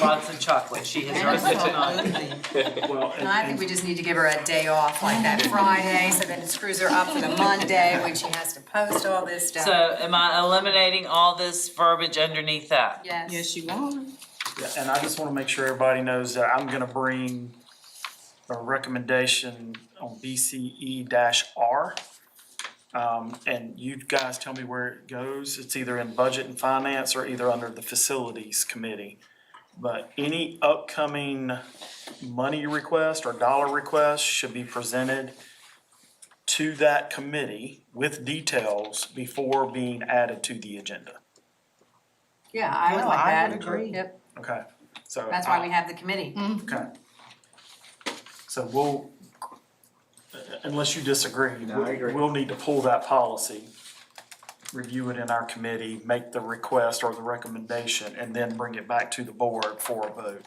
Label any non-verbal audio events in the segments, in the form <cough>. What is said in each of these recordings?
lots of chocolate, she has already done. Well, And I and, think and we just need to give her a day off like that Friday, so then it screws her up for the Monday when she has to post all this stuff. So am I eliminating all this verbiage underneath that? Yes. you are. yeah, and I just wanna make sure everybody knows that I'm gonna bring a recommendation on BCE R. Um, and you guys tell me where it goes. It's either in budget and finance or either under the facilities committee. But any upcoming money request or dollar request should be presented to that committee with details before being added to the agenda. Yeah, I would Mm-hmm. No, like I that. would agree. Yep, Okay, so. that's why we have the committee. Okay. So we'll, unless you disagree. No, I agree. We'll need to pull that policy, review it in our committee, make the request or the recommendation, and then bring it back to the board for a vote.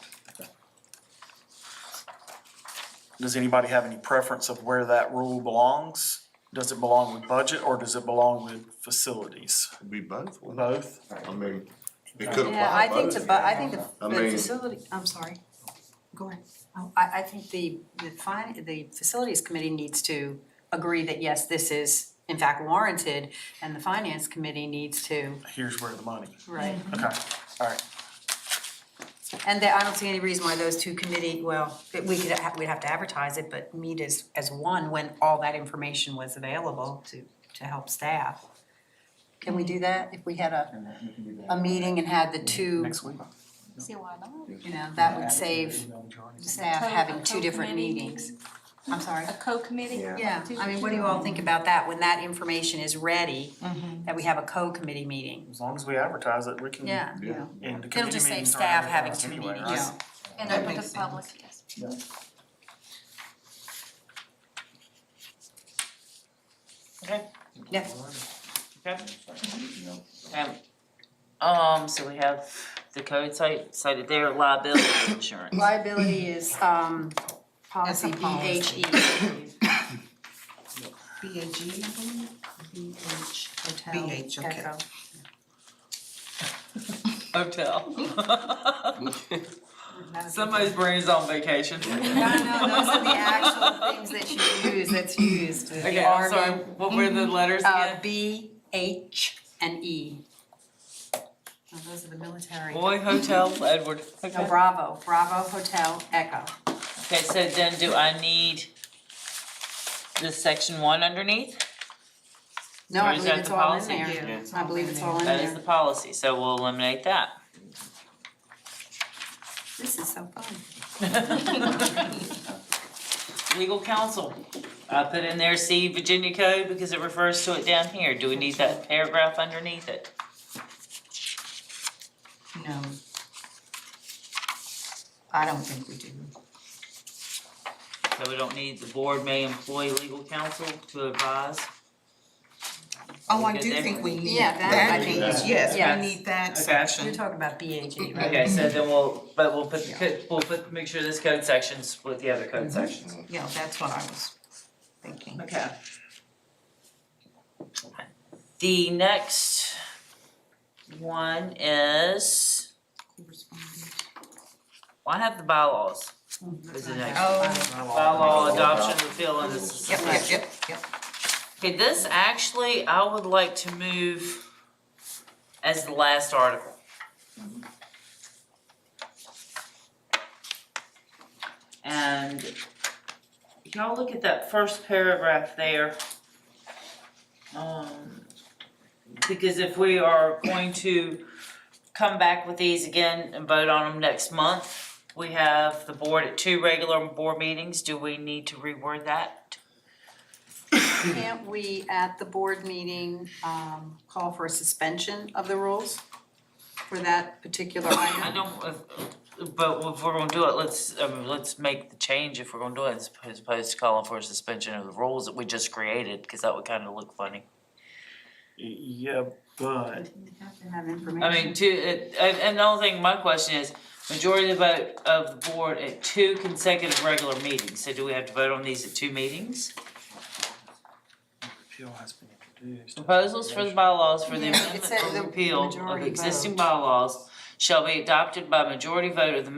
Does anybody have any preference of where that rule belongs? Does it belong with budget or does it belong with facilities? Be both, wouldn't Both? it? I mean, it could apply both. Yeah, I think the, bu- I think the I the mean- facility, I'm sorry, go ahead. Oh, I, I think the, the fin, the facilities committee needs to agree that yes, this is in fact warranted, and the finance committee needs to, Here's where the money. right? Okay, all right. And there- I don't see any reason why those two committee, well, that we could, ha- we'd have to advertise it, but meet as, as one when all that information was available to, to help staff. Can we do that if we had a, a meeting and had the two, Next week. See why not? you know, that would save staff having two different meetings? I'm sorry. A co-committee? Yeah. Yeah, I mean, what do you all think about that, Mm-hmm. when that information is ready, that we have a co-committee meeting? As long as we advertise it, we can. Yeah. Yeah. And the It'll committee just save meetings are staff having advertised two anyway, right? meetings. And That open makes to sense. public, yes. Okay, Yeah. okay. Um, um, so we have the code cite, cited there, liability insurance. Liability is, um, policy That's a policy. BHE. B A E, G, BH, hotel. BH, okay. echo. Hotel. <laughs> Somebody's brain is on <laughs> vacation. No, no, those are the actual things that you use, that's used, the <laughs> Okay, I'm Army, sorry, what were the letters Uh, again? B, H, and E. Now, Those are the military. Boy, hotel, Edward. No, Okay, Bravo, Bravo Hotel Echo. Okay, so then do I need this section one underneath? No, Or I is believe that it's the all in policy? there. Yeah. I believe it's all in That is there. the policy, so we'll eliminate that. This is so fun. <laughs> Legal counsel, I put in there, see Virginia code because it refers to it down here. Do we need that paragraph underneath it? No. I don't think we do. So we don't need, the board may employ legal counsel to advise. Oh, I Good do there. think we need Yeah, that I that, think- piece. yes, Yes. we need that You're section. talking about BHE, right? Okay, so then we'll, but we'll put, the co- we'll put, make sure this code section's with the other code sections. Yeah, that's what I was thinking. Okay. The next one is, well, I have the bylaws. Is it next? Oh, Bylaw adoption, repeal and suspension. yep, yep, yep, yep. Okay, this actually, I would like to move as the last article. And y'all look at that first paragraph there. Um, because if we are going to come back with these again and vote on them next month, we have the board at two regular board meetings, do we need to reword that? Can't we, at the board meeting, um, call for a suspension of the rules for that particular I item? don't, if- but if we're gonna do it, let's, I mean, let's make the change if we're gonna do it, as opposed- opposed to calling for a suspension of the rules that we just created, cause that would kinda look funny. Yeah, but Have to have information. I mean, two, it- and, and the only thing, my question is, majority of the vote of the board at two consecutive regular meetings, so do we have to vote on these at two meetings? repeal has been introduced. Proposals for the bylaws for the Yeah, it amendment said or the repeal majority of existing vote. bylaws shall be adopted by majority vote of the